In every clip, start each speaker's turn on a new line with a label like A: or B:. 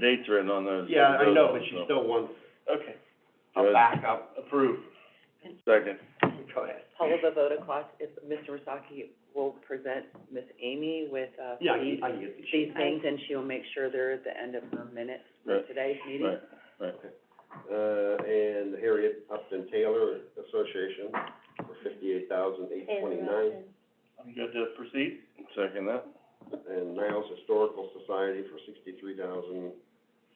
A: Dates written on those.
B: Yeah, I know, but she
A: so-
B: still wants
A: Okay.
B: a
A: Good.
B: backup approved,
A: Second,
B: go ahead.
C: Paula Bavota Cost, if Mr. Wasaki will present Miss Amy with, uh,
B: Yeah, I
C: these,
B: can, I can get these.
C: these things, and she'll make sure they're at the end of her minutes for
A: Right,
C: today's meeting.
A: right, right.
D: uh, and Harriet Upton Taylor Association for fifty-eight thousand eight twenty-nine,
B: I'm good to proceed?
A: Second that,
D: and Niles Historical Society for sixty-three thousand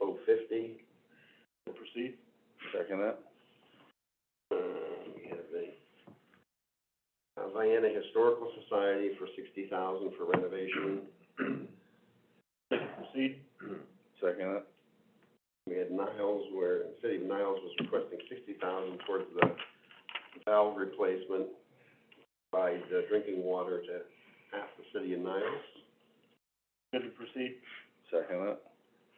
D: oh fifty.
B: We'll proceed.
A: second that,
D: Uh, we have the uh, Vienna Historical Society for sixty thousand for renovation.
B: Proceed.
A: second that,
D: We had Niles where, the city of Niles was requesting sixty thousand towards the valve replacement by the drinking water to half the city of Niles.
B: Good to proceed.
A: second that,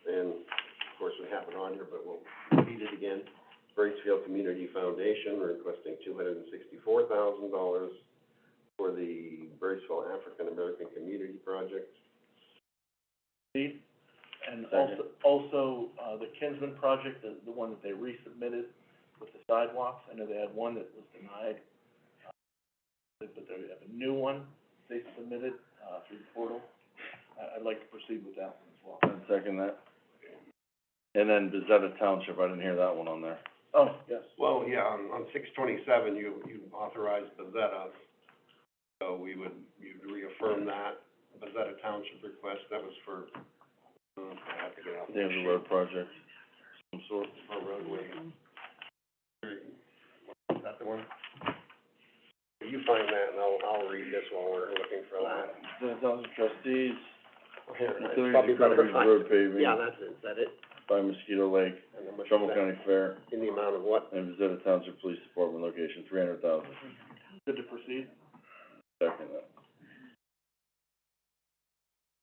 D: And of course, we have it on here, but we'll repeat it again. Bracefield Community Foundation requesting two hundred and sixty-four thousand dollars for the Braceville African American Community Project.
B: Proceed. And
A: Second.
B: also, also, uh, the Kinsman project, the, the one that they resubmitted with the sidewalks, I know they had one that was denied. uh, But they have a new one they submitted, uh, through the portal. I, I'd like to proceed with that one as well.
A: and second that. And then Bezetta Township, I didn't hear that one on there.
B: Oh, yes.
D: Well, yeah, on, on six twenty-seven, you, you authorized Bezetta, so we would, you'd reaffirm that. Bezetta Township request, that was for, um, I have to get out.
A: They have a road project, some sort.
D: For roadway. Is that the one? If you find that, and I'll, I'll read this while we're looking for that.
A: Bezetta Township trustees,
D: It's
A: considering the
D: probably better
A: coverage
D: find-
A: road paving
D: Yeah, that's it, is that it?
A: by Mosquito Lake,
D: And how much is
A: Trumbull
D: that?
A: County Fair,
D: In the amount of what?
A: and Bezetta Township Police Department location, three hundred thousand,
B: Good to proceed.
A: second that.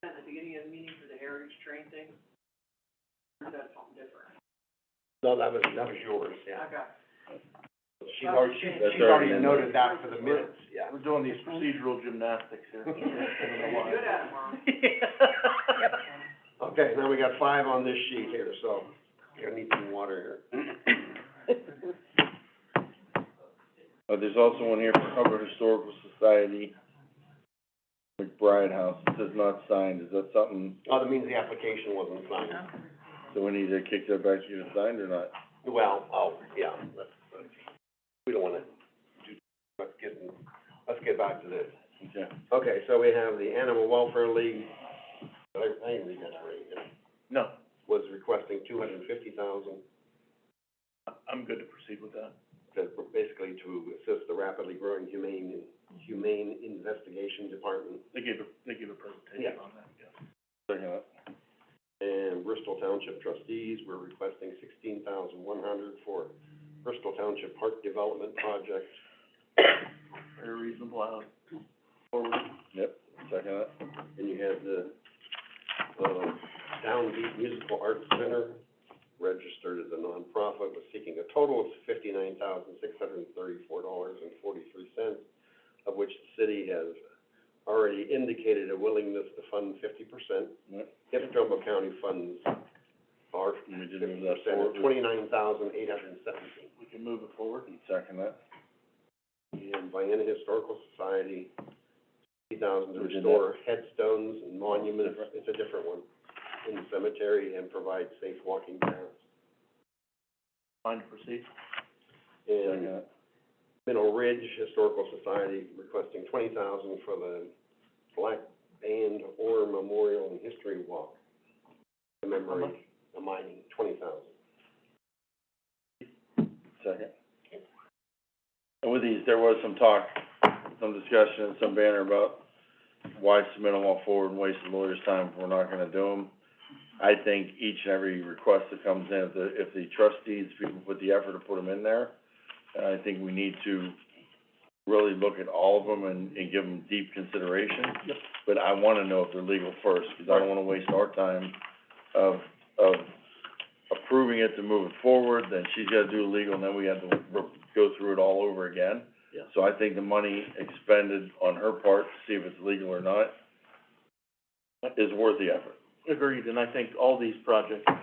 C: At the beginning of the meeting for the heritage train thing, or that's something different?
D: No, that was, that was yours, yeah.
C: Okay.
D: She's already, she's,
A: That's
D: she's already
A: already in
D: noted that for the minutes, yeah.
B: We're doing these procedural gymnastics here. I don't know why.
D: Okay, now we got five on this sheet here, so, I need some water
A: Uh, there's also one here for Hubbard Historical Society, McBride House, it says not signed, is that something,
D: here. Oh, that means the application wasn't signed.
A: so we need to kick that back to you to sign or not?
D: Well, oh, yeah, let's, let's, we don't wanna do, let's get, let's get back to this.
A: Okay.
D: Okay, so we have the Animal Welfare League, I, I didn't read that already, did I?
B: No,
D: was requesting two hundred and fifty thousand,
B: I- I'm good to proceed with that.
D: to, basically to assist the rapidly growing humane, humane investigation department.
B: They gave a, they gave a presentation
D: Yeah.
B: on that, yeah.
A: Second that.
D: And Bristol Township trustees were requesting sixteen thousand one hundred for Bristol Township Park Development Project.
B: Very reasonable, I would forward.
A: Yep, second that.
D: And you had the, um, Downbeat Musical Arts Center, registered as a nonprofit, was seeking a total of fifty-nine thousand, six hundred and thirty-four dollars and forty-three cents, of which the city has already indicated a willingness to fund fifty percent.
A: Yep.
D: If Trumbull County funds our
A: And we did
D: fifty
A: move that
D: percent, or
A: forward.
D: twenty-nine thousand, eight hundred and seventeen.
B: We can move it forward.
A: Second that.
D: And Vienna Historical Society, fifty thousand to
A: We did
D: restore headstones and monuments, it's a different one, in the cemetery and provide safe walking paths.
B: Fine to proceed.
A: Second
D: And
A: that.
D: Middle Ridge Historical Society requesting twenty thousand for the Black Band Ore Memorial and History Walk. Remembering the mining, twenty thousand.
A: Second. And with these, there was some talk, some discussion, and some banner about why submit them all forward and waste the lawyer's time if we're not gonna do them. I think each and every request that comes in, if the, if the trustees, people put the effort to put them in there, uh, I think we need to really look at all of them and, and give them deep consideration.
B: Yep.
A: But I wanna know if they're legal first, cause I don't wanna waste our time of, of approving it to move it forward, then she's gotta do legal, and then we have to r- go through it all over again.
B: Yeah.
A: So I think the money expended on her part, to see if it's legal or not, is worth the effort.
B: Agreed, and I think all these projects